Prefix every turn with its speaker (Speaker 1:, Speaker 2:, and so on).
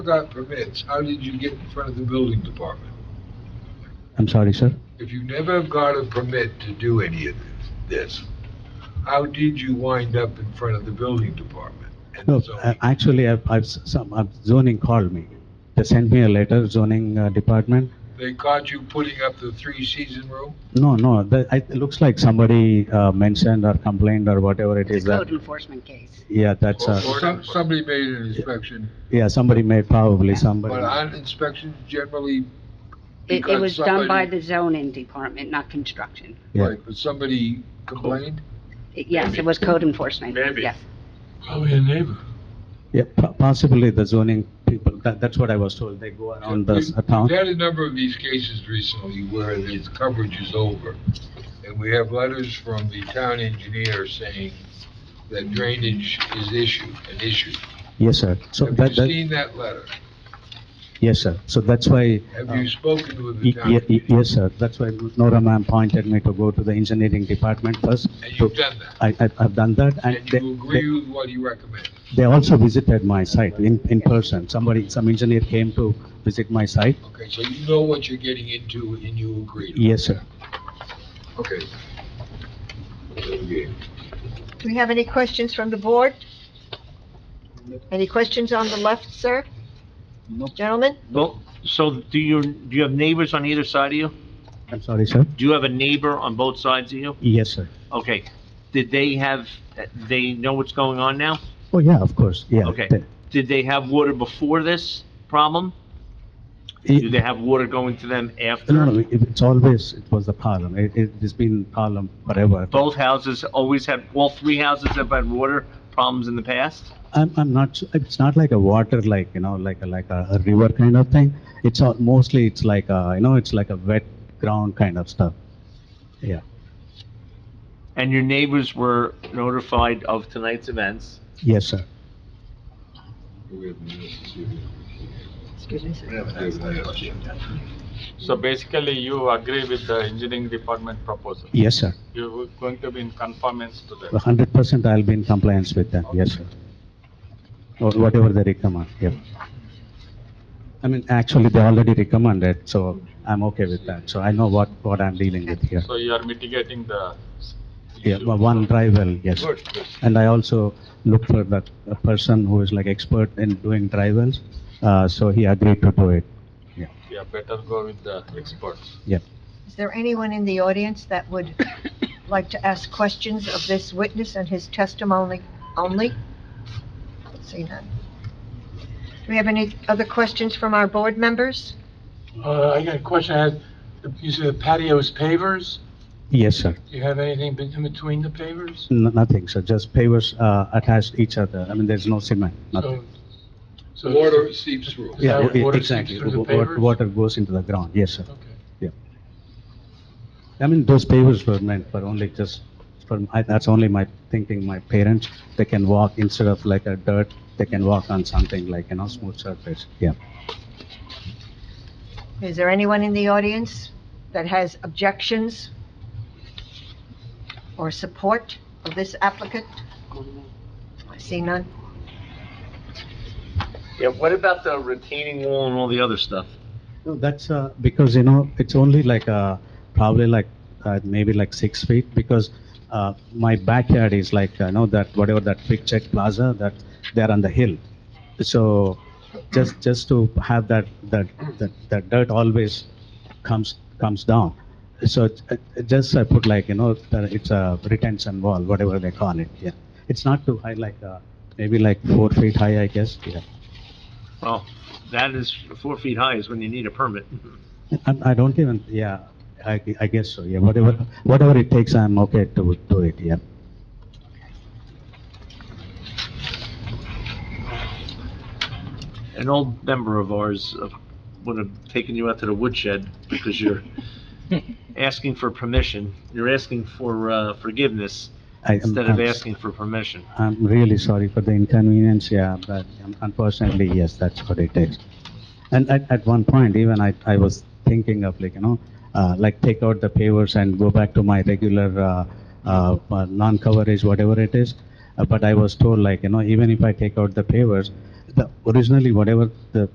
Speaker 1: got permits, how did you get in front of the building department?
Speaker 2: I'm sorry, sir.
Speaker 1: If you never got a permit to do any of this, how did you wind up in front of the building department? and the
Speaker 2: No,
Speaker 1: zoning?
Speaker 2: uh, actually, I've, I've, s- some, uh, zoning called me. They sent me a letter, zoning uh, department.
Speaker 1: They caught you putting up the three-season room?
Speaker 2: No, no, the, I- it looks like somebody uh, mentioned or complained or whatever it is
Speaker 3: It's a code
Speaker 2: that,
Speaker 3: enforcement case.
Speaker 2: yeah, that's,
Speaker 1: Or-
Speaker 2: uh,
Speaker 1: or some- Somebody made an inspection,
Speaker 2: yeah, somebody made, probably somebody.
Speaker 1: but on inspections generally,
Speaker 3: It, it
Speaker 1: Because
Speaker 3: was done by
Speaker 1: somebody-
Speaker 3: the zoning department, not construction.
Speaker 2: Yeah.
Speaker 1: right, but somebody complained?
Speaker 3: It- Yes, it was code enforcement,
Speaker 4: Maybe.
Speaker 3: yes.
Speaker 1: Probably a neighbor.
Speaker 2: Yeah, po- possibly the zoning people, that, that's what I was told, they go around the s-
Speaker 1: We've-
Speaker 2: town.
Speaker 1: We've had a number of these cases recently where the coverage is over, and we have letters from the town engineer saying that drainage is issue, an issue.
Speaker 2: Yes, sir. So
Speaker 1: Have you
Speaker 2: that, that,
Speaker 1: seen that letter?
Speaker 2: yes, sir. So that's why.
Speaker 1: Have
Speaker 2: uh,
Speaker 1: you spoken with the
Speaker 2: Y-
Speaker 1: town
Speaker 2: ye- y-
Speaker 1: engineer?
Speaker 2: Yes, sir. That's why Nora ma'am pointed me to go to the engineering department first.
Speaker 1: And
Speaker 2: So
Speaker 1: you've done that,
Speaker 2: I, I- I've done that, and
Speaker 1: and
Speaker 2: they,
Speaker 1: you
Speaker 2: they-
Speaker 1: agree with what he recommends?
Speaker 2: they also visited my site in, in person. Somebody, some engineer came to visit my site.
Speaker 1: Okay, so you know what you're getting into and you agree? to it.
Speaker 2: Yes, sir.
Speaker 1: Okay. Okay.
Speaker 5: Do we have any questions from the board? Any questions on the left, sir? No. Gentlemen?
Speaker 4: Well, so do you, do you have neighbors on either side of you?
Speaker 2: I'm sorry, sir.
Speaker 4: Do you have a neighbor on both sides of you?
Speaker 2: Yes, sir.
Speaker 4: Okay, did they have, they know what's going on now?
Speaker 2: Oh, yeah, of course, yeah.
Speaker 4: Okay.
Speaker 2: They-
Speaker 4: Did they have water before this problem? Did
Speaker 2: it-
Speaker 4: they have water going to them after?
Speaker 2: No, no, it- it's always, it was the problem. It, it- it's been problem forever.
Speaker 4: Both houses always had, all three houses have had water problems in the past?
Speaker 2: I'm, I'm not, su- it's not like a water, like, you know, like, a like a a river kind of thing. It's all, mostly it's like a, you know, it's like a wet ground kind of stuff. Yeah,
Speaker 4: And your neighbors were notified of tonight's events?
Speaker 2: yes, sir.
Speaker 1: We have a-
Speaker 5: Excuse me, sir.
Speaker 6: So basically, you agree with the engineering department proposal.
Speaker 2: Yes, sir.
Speaker 6: You're going to be in conformance to that.
Speaker 2: hundred percent I'll be in compliance with them, yes, sir. Or whatever they recommend, yeah. I mean, actually, they already recommended, so I'm okay with that, so I know what, what I'm dealing with here.
Speaker 6: So you are mitigating the s-
Speaker 2: Yeah,
Speaker 6: issue.
Speaker 2: but one dry well, yes.
Speaker 1: Good, good.
Speaker 2: And I also look for that a person who is like expert in doing dry wells, uh, so he agreed to do it,
Speaker 6: Yeah, better go with the experts.
Speaker 2: yeah.
Speaker 5: Is there anyone in the audience that would like to ask questions of this witness and his testimony only? See none. Do we have any other questions from our board members?
Speaker 7: Uh, I got a question. I had, you said the patio's pavers?
Speaker 2: Yes, sir,
Speaker 7: Do you have anything be- in between the pavers?
Speaker 2: N- nothing, sir, just pavers, uh, attached each other, I mean, there's no cement, nothing.
Speaker 7: So, so-
Speaker 1: Water seeps through.
Speaker 7: Yeah.
Speaker 2: Yeah,
Speaker 7: that
Speaker 2: e-
Speaker 7: water seeps
Speaker 2: exactly,
Speaker 7: through the
Speaker 2: Wa- wa-
Speaker 7: pavers?
Speaker 2: water goes into the ground, yes, sir.
Speaker 7: Okay.
Speaker 2: I mean, those pavers were meant for only just, for, I, that's only my thinking, my parents, they can walk instead of like a dirt, they can walk on something like, you know, smooth surface, yeah.
Speaker 5: Is there anyone in the audience that has objections or support of this applicant? I see none.
Speaker 4: Yeah, what about the retaining wall and all the other stuff?
Speaker 2: No, that's, uh, because, you know, it's only like, uh, probably like, uh, maybe like six feet, because, uh, my backyard is like, you know, that, whatever that big check plaza, that, they're on the hill. So, just, just to have that, that, that, that dirt always comes, comes down. So, it- it- just I put like, you know, that it's a retention wall, whatever they call it, yeah. It's not too high, like, uh, maybe like four feet high, I guess, yeah.
Speaker 4: Well, that is, four feet high is when you need a permit.
Speaker 2: I, I don't even, yeah, I, gu- I guess so, yeah, whatever, whatever it takes, I'm okay to do it, yeah.
Speaker 4: An old member of ours uh, would have taken you out to the woodshed because you're asking for permission. You're asking for uh, forgiveness
Speaker 2: I am-
Speaker 4: instead of
Speaker 2: I'm-
Speaker 4: asking for permission.
Speaker 2: I'm really sorry for the inconvenience, yeah, but un- unfortunately, yes, that's what it is. And at, at one point, even I, I was thinking of like, you know, uh, like take out the pavers and go back to my regular, uh, uh, uh, non-coverage, whatever it is. Uh, But I was told like, you know, even if I take out the pavers, the, originally whatever the